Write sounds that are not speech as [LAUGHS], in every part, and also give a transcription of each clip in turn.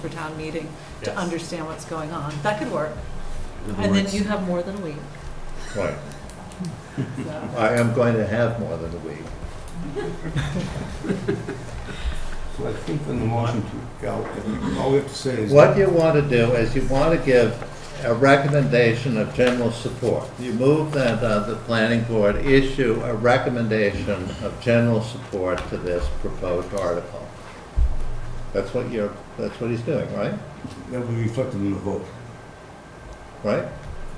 for town meeting to Yes. understand what's going on. That could work. In other And then words- you have more than a week. Right. [LAUGHS] so. I am going to have more than a week. So I think on the motion to, yeah, all we have to say is. What you want to do is you want to give a recommendation of general support. You move that uh, the planning board issue a recommendation of general support to this proposed article. That's what you're, that's what he's doing, right? That will be reflected in the vote. Right?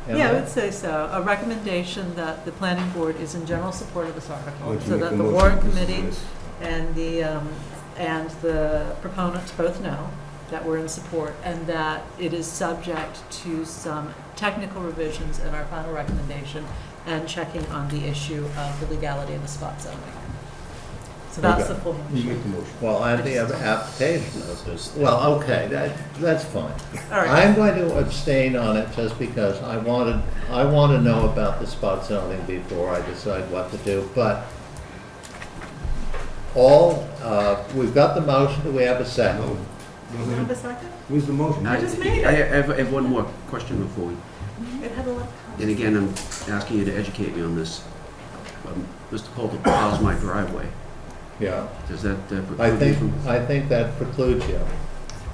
Yeah, I would say so. A recommendation that the planning board is in general support of this I'll article, let you so make that the motion. warrant This is committee this. and the, um, and the proponents both know that we're in support and that it is subject to some technical revisions in our final recommendation and checking on the issue of the legality of the spot zoning. So that's the full You make motion. the motion. Well, and the other application of this, well, okay, that, that's fine. All right. I'm going to abstain on it just because I wanted, I want to know about the spot zoning before I decide what to do, but all, uh, we've got the motion, do we have a second? No, Do you have a no, second? where's the motion? I I just made it. I have, I have one more question before we, It had a lot of and again, I'm asking you to educate me on this. Um, Mr. Colter plows my driveway. Yeah, Does that uh, I preclude me think, from? I think that precludes you.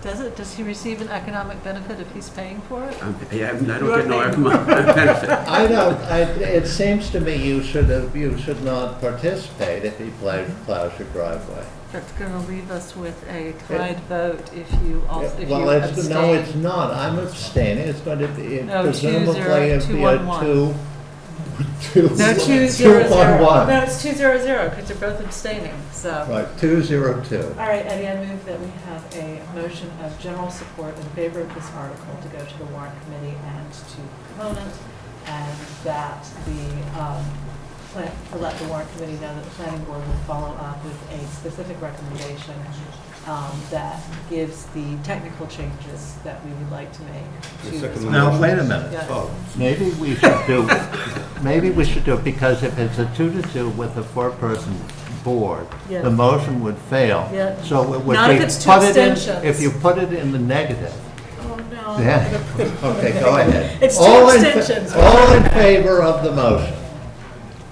Does it, does he receive an economic benefit if he's paying for it? I'm- yeah, I'm- I You don't are get no paying. economic benefit. I don't, I, it seems to me you should have, you should not participate if he plows, plows your driveway. That's going to leave us with a tied vote if you, al- if you Well, it's, no, it's abstain. not, I'm abstaining, it's going to be, No, two zero- presumably it'd two be one a one. uh, two. two- No, two zero one, zero. one. No, it's two zero zero because they're both abstaining, so. Right, two zero two. All right, Eddie, I move that we have a motion of general support in favor of this article to go to the warrant committee and to proponent, and that the, um, plan- to let the warrant committee know that the planning board will follow up with a specific recommendation um, that gives the technical changes that we would like to make The to second this. one. Now, wait a minute, Yes. Oh, maybe we should do, maybe we should do, it because if it's a two to two with a four-person board, Yes. the motion would fail. Yeah. So it would be. Not if it's two put it in- abstentions. If you put it in the negative, Oh, no. Yeah. okay, go ahead. It's two All in fa- abstentions. All in favor of the motion?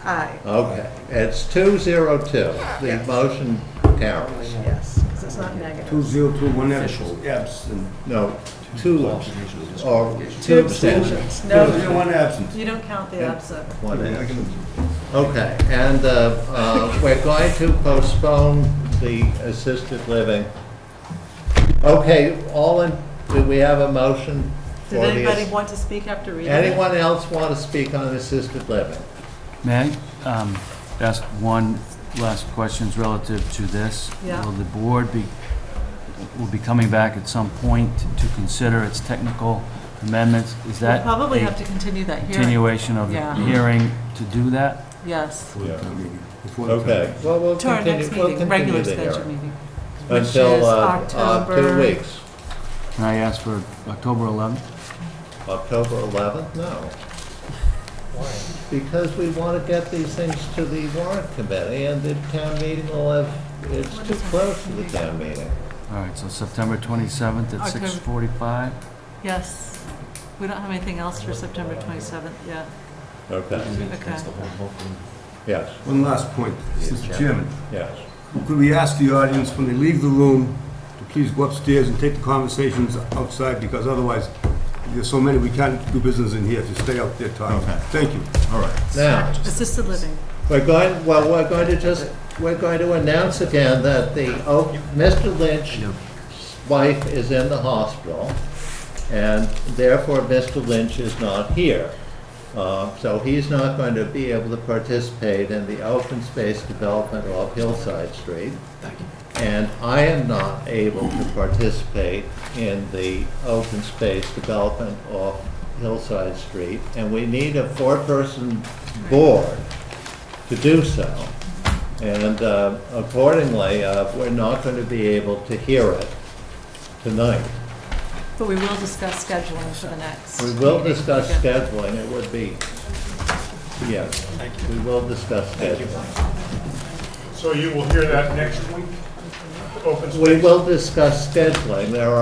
Aye, Okay, it's two zero two, the motion carries. yes, because it's not negative. two zero two one Official. abs- absent. No, two, Observation of this. or Two two abstentions. abstentions. No. Two zero one absent. You don't count the absent. One Okay, I absent. can- Okay, and uh, uh, we're going to postpone the assisted living. Okay, all in, do we have a motion? for Did the anybody ass- want to speak after reading it? Anyone else want to speak on assisted living? May I um, ask one last question relative to this? Yeah. Will the board be, will be coming back at some point to consider its technical amendments? Is We'll that probably have a to continue that hearing, continuation of the Yeah. hearing to do that? yes. Before the town meeting. Before the town Okay, well, we'll To our continue, next we'll meeting, regular continue the scheduled hearing. meeting. which is Until uh, uh, October- two weeks. Can I ask for October 11th? October 11th? No. Why? Because we want to get these things to the warrant committee, and the town meeting will have, it's too close to the town meeting. All right, so September 27th at October. 6:45? Yes. We don't have anything else for September 27th yet. Okay. Okay. Yes, One last point, Mr. Chairman. yes. Could we ask the audience, when they leave the room, to please go upstairs and take the conversations outside, because otherwise, there's so many, we can't do business in here if you stay out there talking. Okay. Thank you. All right. Now, Assisted living. we're going, well, we're going to just, we're going to announce again that the, Oak- Mr. Lynch's wife is in the hospital, and therefore Mr. Lynch is not here. Uh, So he's not going to be able to participate in the open space development off Hillside Street. And I am not able to participate in the open space development off Hillside Street. And we need a four-person board to do so. And uh, accordingly, uh, we're not going to be able to hear it tonight. But we will discuss scheduling for the next. We will meeting. discuss Okay. scheduling, it would be, yes, we will discuss scheduling. So you will hear that next week? Open We space? will discuss scheduling, there are